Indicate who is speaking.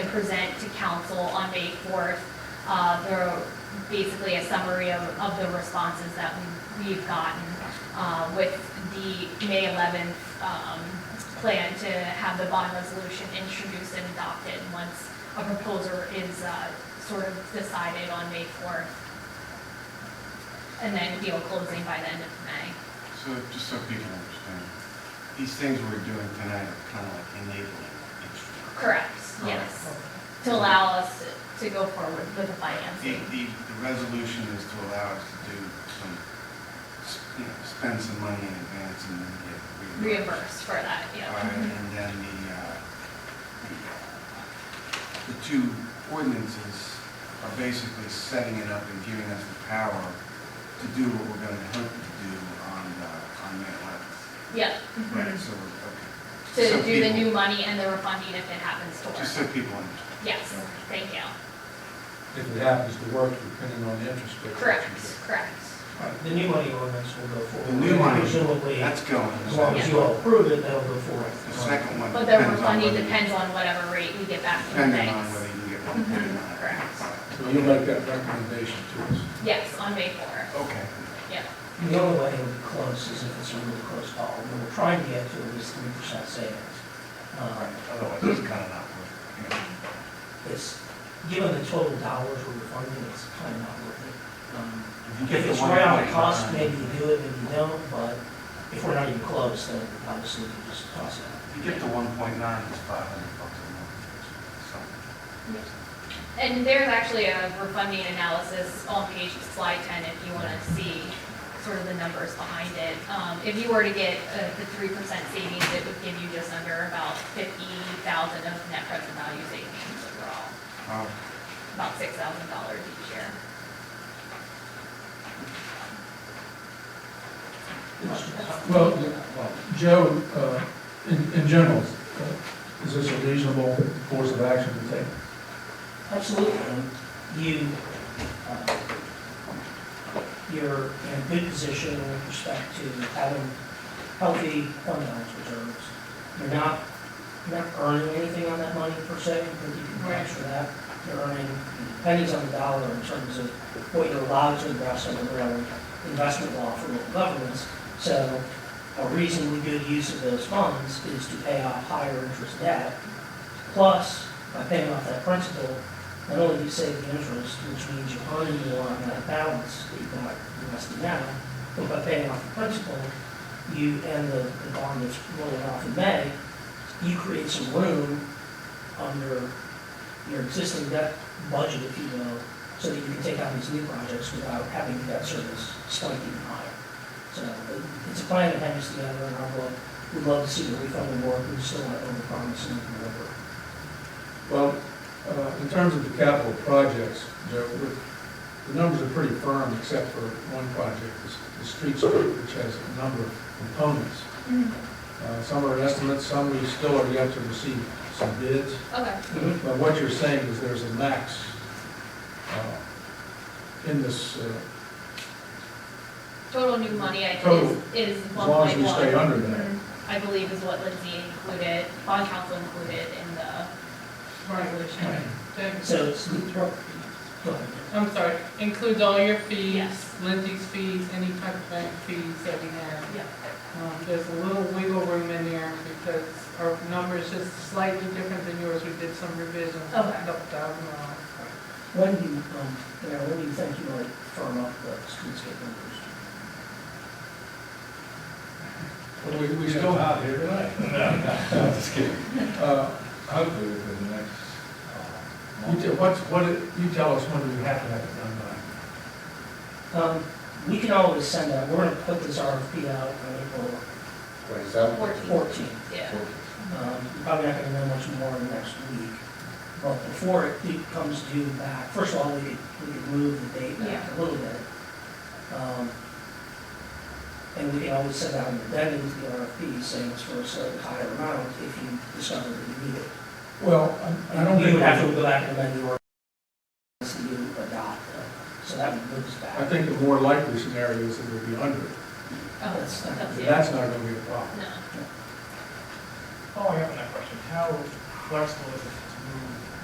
Speaker 1: present to council on May 4th, uh, the, basically a summary of, of the responses that we- we've gotten uh, with the May 11th um, plan to have the bond resolution introduced and adopted once a proposer is uh, sort of decided on May 4th. And then deal closing by the end of May.
Speaker 2: So, just so people understand, these things we're doing tonight are kind of like enabling each other.
Speaker 1: Correct, yes. To allow us to- to go forward with the
Speaker 2: The,
Speaker 1: financing.
Speaker 2: the, the resolution is to allow us to do some, s- you know, spend some money in advance and then get reimbursed.
Speaker 1: Reimbursed for that,
Speaker 2: All
Speaker 1: yeah.
Speaker 2: right, and then the, uh, the, uh, the two ordinances are basically setting it up and giving us the power to do what we're going to hope to do on, uh, on May 11th.
Speaker 1: Yeah.
Speaker 2: Right,
Speaker 1: mhm.
Speaker 2: so, we're- okay. Just
Speaker 1: To
Speaker 2: so
Speaker 1: do the
Speaker 2: people-
Speaker 1: new money and the refunding if it happens to
Speaker 2: Just
Speaker 1: work.
Speaker 2: so people understand.
Speaker 1: Yes, thank you.
Speaker 3: If it happens to work, depending on the interest rate.
Speaker 1: Correct, correct.
Speaker 4: Right, The new money ordinance will go forward.
Speaker 2: The new money.
Speaker 4: Presumably, as
Speaker 2: That's going.
Speaker 4: long as you all approve it, that'll go forward.
Speaker 2: The second one.
Speaker 1: But the
Speaker 2: depends on
Speaker 1: refunding
Speaker 2: whether-
Speaker 1: depends on whatever rate we get back from the
Speaker 2: Depending on whether
Speaker 1: banks. Mm-hmm.
Speaker 2: you get one point or not.
Speaker 1: Correct.
Speaker 3: So you'll make that recommendation to us.
Speaker 1: Yes, on May 4th,
Speaker 2: Okay.
Speaker 1: yeah.
Speaker 4: The only way it'll be close is if it's a really close call. We're trying to get to at least three percent savings. Um,
Speaker 2: Otherwise, it's kind of not worth it.
Speaker 4: It's, given the total dollars we're funding, it's kind of not worth it. Um,
Speaker 2: you get
Speaker 4: If
Speaker 2: the
Speaker 4: it's
Speaker 2: one
Speaker 4: right on
Speaker 2: point,
Speaker 4: cost,
Speaker 2: uh,
Speaker 4: maybe you do it, maybe you don't, but if we're not even close, then obviously you just toss it out.
Speaker 2: If you get the one point nine, it's five hundred bucks a month.
Speaker 1: And there's actually a refunding analysis on page slide 10 if you want to see sort of the numbers behind it. Um, If you were to get uh, the 3% savings, it would give you just under about 50,000 of net present value savings overall,
Speaker 2: So, um,
Speaker 1: about $6,000 each year.
Speaker 5: Well, Joe, uh, in in general, uh, is this a reasonable course of action to take?
Speaker 4: Absolutely. You, uh, you're in a good position with respect to having healthy fund balance reserves. You're not, you're not earning anything on that money per se, but you can
Speaker 1: Right.
Speaker 4: tax for that. You're earning pennies on the dollar in terms of what you're allowed to invest under the relevant investment law for local governments. So a reasonably good use of those funds is to pay off higher interest debt. Plus, by paying off that principal, not only do you save the interest, which means you're earning more on that balance that you got invested now, but by paying off the principal, you and the, the bond that's rolling off in May, you create some room under your existing debt budget, if you will, so that you can take on these new projects without having the debt service spike even higher. So it- it's a plan that hangs together in our book. We'd love to see the refunding work, we just don't want to overpromise and underdeliver.
Speaker 5: Well, uh, in terms of the capital projects, Joe, we're- the numbers are pretty firm except for one project, the- the streetscape, which has a number of components. Uh, Some are estimates, some we still are yet to receive some bids.
Speaker 1: Okay.
Speaker 5: But what you're saying is there's a max uh, in this, uh,
Speaker 1: Total new money I
Speaker 5: Total.
Speaker 1: is, is
Speaker 5: as
Speaker 1: 1.1.
Speaker 5: long as we stay under that.
Speaker 1: I believe is what Lindsay included, bond council included in the resolution.
Speaker 4: So it's, go ahead.
Speaker 6: I'm sorry, includes all your fees,
Speaker 1: Yes.
Speaker 6: Lindsay's fees, any type of bank fees that we have.
Speaker 1: Yep.
Speaker 6: Um, There's a little wiggle room in there because our number is just slightly different than yours. We did some revisions, a
Speaker 1: Okay.
Speaker 6: couple thousand dollars.
Speaker 4: When do you, um, Mayor, when do you think you might firm up the streetscape numbers?
Speaker 5: But We, we still have here tonight.
Speaker 7: Just kidding.
Speaker 5: Uh,
Speaker 7: Hopefully within the next, uh,
Speaker 5: You
Speaker 7: month.
Speaker 5: tell, what's, what, it- you tell us when we have to have it done by.
Speaker 4: Um, we can always send out, we're gonna put this RFP out on April
Speaker 7: Wait, is that?
Speaker 1: Fourteen.
Speaker 4: fourteenth.
Speaker 1: Yeah.
Speaker 4: Um, you're probably not gonna know much more in the next week. But before it it comes due back, first of all, we could, we could move the date back a little bit. Um, And we can always send out an addendum to the RFP saying it's for a certain higher amount if you discover that you need it.
Speaker 5: Well, I- I don't
Speaker 4: You would have
Speaker 5: think,
Speaker 4: to go back and amend the ordinance to do adopt, uh, so that would move us back.
Speaker 5: I think the more likely scenario is that we'll be under it.
Speaker 1: Oh, that's, that's
Speaker 5: And
Speaker 1: it.
Speaker 5: That's not gonna be a problem.
Speaker 1: No.
Speaker 8: Oh, I have that question. How flexible is it to move